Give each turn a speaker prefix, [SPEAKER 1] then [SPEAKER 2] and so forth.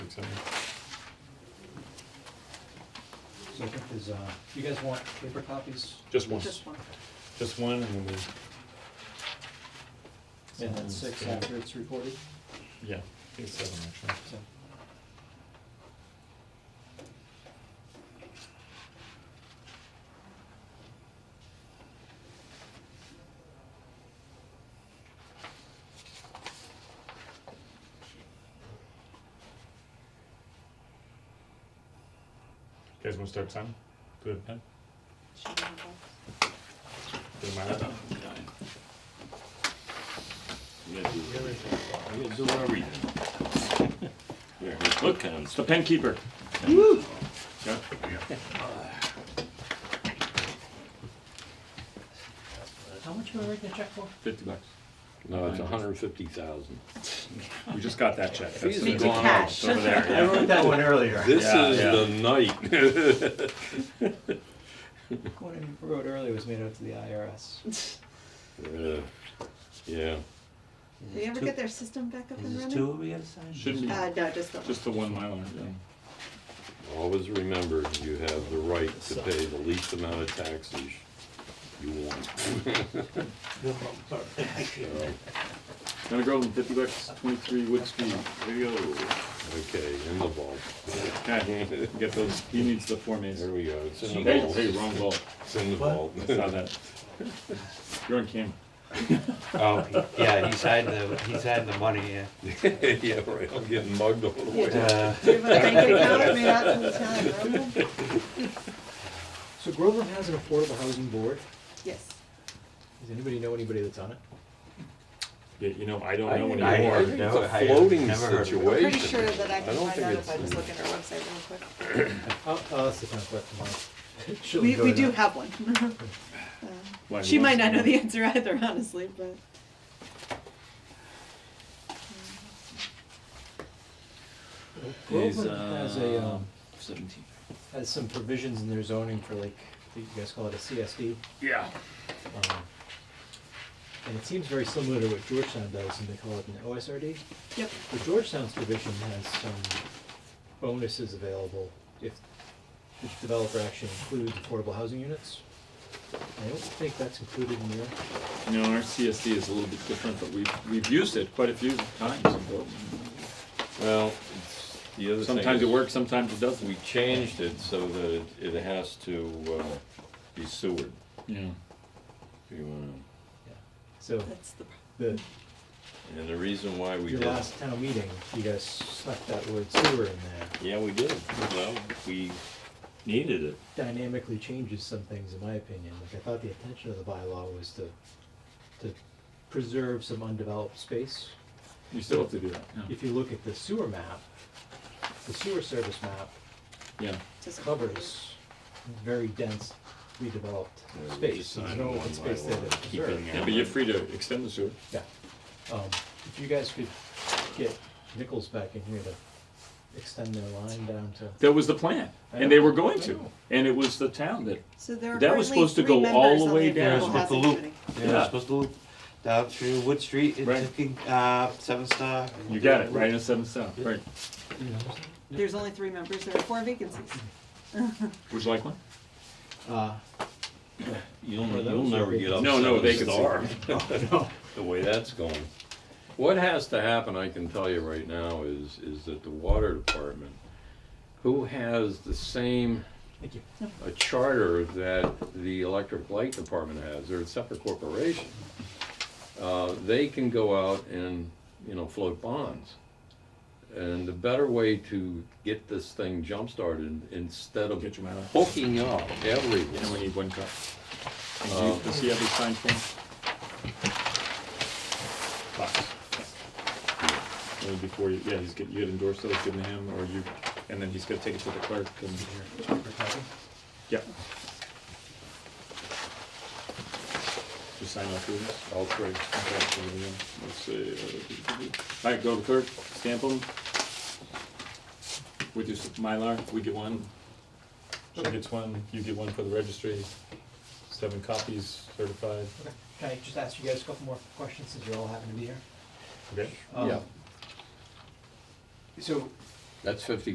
[SPEAKER 1] I think there's, uh, you guys want paper copies?
[SPEAKER 2] Just one,
[SPEAKER 3] Just one.
[SPEAKER 2] just one, and we,
[SPEAKER 1] And then six after it's recorded,
[SPEAKER 2] yeah, I think seven actually.
[SPEAKER 1] so.
[SPEAKER 2] You guys wanna start signing? Do it, pen?
[SPEAKER 3] Should we have both?
[SPEAKER 2] Do it, mine?
[SPEAKER 4] You gotta do everything. You gotta do everything. You're a good kind
[SPEAKER 2] It's the pen keeper. Yeah.
[SPEAKER 5] How much am I writing a check for?
[SPEAKER 2] Fifty bucks.
[SPEAKER 4] No, it's a hundred and fifty thousand.
[SPEAKER 2] We just got that check. That's
[SPEAKER 3] Easy
[SPEAKER 2] the-
[SPEAKER 3] to catch.
[SPEAKER 2] Over there, yeah.
[SPEAKER 5] I wrote that one earlier.
[SPEAKER 4] This
[SPEAKER 2] Yeah,
[SPEAKER 4] is
[SPEAKER 2] yeah.
[SPEAKER 4] the night.
[SPEAKER 1] One I wrote earlier was made out to the IRS.
[SPEAKER 4] Uh, Yeah,
[SPEAKER 3] Do you ever get their system back up and
[SPEAKER 5] Is this
[SPEAKER 3] running?
[SPEAKER 5] two we gotta sign?
[SPEAKER 2] Shouldn't be,
[SPEAKER 3] Uh, no, just the one.
[SPEAKER 2] just the one Mylar, yeah.
[SPEAKER 4] always remember, you have the right to pay the least amount of taxes you want. So,
[SPEAKER 2] Gonna go with fifty bucks, twenty-three Wood Street, there you go.
[SPEAKER 4] Okay, in the vault.
[SPEAKER 2] Okay, get those, he needs the Form As.
[SPEAKER 4] There we go, it's in the
[SPEAKER 2] Hey,
[SPEAKER 4] vault.
[SPEAKER 2] hey, wrong ball,
[SPEAKER 4] It's in the
[SPEAKER 5] What?
[SPEAKER 4] vault.
[SPEAKER 2] I saw that. You're on camera.
[SPEAKER 6] Oh, he- yeah, he's had the, he's had the money, yeah.
[SPEAKER 4] Yeah, right, I'm getting mugged all the way.
[SPEAKER 6] Uh,
[SPEAKER 3] Do you have a bank account made out to the town of Groveland?
[SPEAKER 1] So Groveland has an affordable housing board.
[SPEAKER 3] Yes.
[SPEAKER 1] Does anybody know anybody that's on it?
[SPEAKER 2] Yeah, you know, I don't
[SPEAKER 4] I
[SPEAKER 2] know
[SPEAKER 4] didn't
[SPEAKER 6] I
[SPEAKER 2] anymore.
[SPEAKER 6] heard
[SPEAKER 4] think
[SPEAKER 6] no,
[SPEAKER 4] It's
[SPEAKER 6] I
[SPEAKER 4] a
[SPEAKER 6] have
[SPEAKER 4] floating
[SPEAKER 6] never heard of it.
[SPEAKER 4] situation.
[SPEAKER 3] Pretty sure that I
[SPEAKER 4] I
[SPEAKER 3] can
[SPEAKER 4] don't
[SPEAKER 3] find
[SPEAKER 4] think
[SPEAKER 3] out
[SPEAKER 4] it's
[SPEAKER 3] if I just
[SPEAKER 4] in-
[SPEAKER 3] look at our website real quick.
[SPEAKER 1] I'll,
[SPEAKER 5] Oh, uh,
[SPEAKER 1] I'll ask the town clerk tomorrow. She'll
[SPEAKER 3] We,
[SPEAKER 1] go
[SPEAKER 3] we
[SPEAKER 1] to
[SPEAKER 3] do
[SPEAKER 1] that.
[SPEAKER 3] have one. Uh,
[SPEAKER 2] Why,
[SPEAKER 3] She
[SPEAKER 2] who
[SPEAKER 3] might
[SPEAKER 2] wants
[SPEAKER 3] not
[SPEAKER 2] to
[SPEAKER 3] know the answer either, honestly, but.
[SPEAKER 1] Groveland has a,
[SPEAKER 5] uh,
[SPEAKER 1] um,
[SPEAKER 5] Seventeen.
[SPEAKER 1] has some provisions in their zoning for like, I think you guys call it a CSD.
[SPEAKER 2] Yeah.
[SPEAKER 1] um, And it seems very similar to what Georgetown does, and they call it an OSRD.
[SPEAKER 3] Yep,
[SPEAKER 1] The Georgetown's provision has some bonuses available if the developer actually includes affordable housing units. I don't think that's included in your,
[SPEAKER 2] You know, our CSD is a little bit different, but we've, we've used it quite a few times. in Groveland.
[SPEAKER 4] Well, it's, the other thing
[SPEAKER 2] Sometimes
[SPEAKER 4] is-
[SPEAKER 2] it works, sometimes it
[SPEAKER 4] We
[SPEAKER 2] doesn't.
[SPEAKER 4] changed it so that it- it has to uh, be sewered.
[SPEAKER 2] Yeah.
[SPEAKER 4] If you wanna-
[SPEAKER 1] so
[SPEAKER 3] that's the,
[SPEAKER 1] the,
[SPEAKER 4] And the reason why we
[SPEAKER 1] your
[SPEAKER 4] did,
[SPEAKER 1] last town meeting, you guys stuck that word sewer in there.
[SPEAKER 4] yeah, we did, well, we needed it.
[SPEAKER 1] Dynamically changes some things, in my opinion. Like, I thought the intention of the bylaw was to, to preserve some undeveloped space.
[SPEAKER 2] You still have to do that. Yeah.
[SPEAKER 1] If you look at the sewer map, the sewer service map,
[SPEAKER 2] Yeah.
[SPEAKER 3] just.
[SPEAKER 1] covers very dense redeveloped
[SPEAKER 4] Yeah,
[SPEAKER 1] space.
[SPEAKER 4] we just
[SPEAKER 1] There's
[SPEAKER 4] signed
[SPEAKER 1] no
[SPEAKER 4] one
[SPEAKER 1] open space there
[SPEAKER 4] bylaw,
[SPEAKER 1] that's
[SPEAKER 4] keeping
[SPEAKER 1] preserved.
[SPEAKER 4] it.
[SPEAKER 2] Yeah, but you're free to extend the sewer.
[SPEAKER 1] Yeah. Um, if you guys could get Nichols back in here to extend their line down to,
[SPEAKER 2] That was the plan, and they were going to, and it was the town that,
[SPEAKER 3] So there are
[SPEAKER 2] That was
[SPEAKER 3] currently
[SPEAKER 2] supposed to
[SPEAKER 3] three
[SPEAKER 2] go all
[SPEAKER 3] members
[SPEAKER 2] the
[SPEAKER 3] on
[SPEAKER 2] way down.
[SPEAKER 3] Affordable
[SPEAKER 2] Yeah,
[SPEAKER 6] with the
[SPEAKER 3] Housing
[SPEAKER 6] loop.
[SPEAKER 3] Committee.
[SPEAKER 6] They were
[SPEAKER 2] Yeah.
[SPEAKER 6] supposed to loop down through Wood Street
[SPEAKER 2] Right.
[SPEAKER 6] into, King- uh, Seven Star.
[SPEAKER 2] you got it, right in seven south, right.
[SPEAKER 3] There's only three members, there are four vacancies.
[SPEAKER 2] Would you like one?
[SPEAKER 1] uh,
[SPEAKER 4] You'll,
[SPEAKER 1] Well, that
[SPEAKER 4] you'll
[SPEAKER 1] was a
[SPEAKER 4] never
[SPEAKER 1] big-
[SPEAKER 4] get up
[SPEAKER 2] No, no,
[SPEAKER 4] seven
[SPEAKER 2] vacancy.
[SPEAKER 4] star, the way that's going. What has to happen, I can tell you right now, is, is that the water department, who has the same
[SPEAKER 1] thank you.
[SPEAKER 4] a charter that the electric light department has, they're a separate corporation. Uh, They can go out and, you know, float bonds. And the better way to get this thing jump-started, instead of
[SPEAKER 2] Get your man up.
[SPEAKER 4] hooking up
[SPEAKER 2] And we
[SPEAKER 4] everyone,
[SPEAKER 2] need one cup. And do you- Does he have his signed form? Box. Only before you, yeah, he's get, you had endorsed those, given to him, or you, and then he's gonna take it to the clerk and, yeah. Just sign all three of these.
[SPEAKER 4] all
[SPEAKER 2] Okay, so
[SPEAKER 4] three.
[SPEAKER 2] we, uh, Let's see. uh, All right, go to clerk, stamp them. With your s- Mylar, we get one. She gets one, you get one for the registry. Seven copies certified.
[SPEAKER 1] Can I just ask you guys a couple more questions since you all happen to be here?
[SPEAKER 2] Okay.
[SPEAKER 1] Um,
[SPEAKER 4] Yeah.
[SPEAKER 1] So
[SPEAKER 4] That's fifty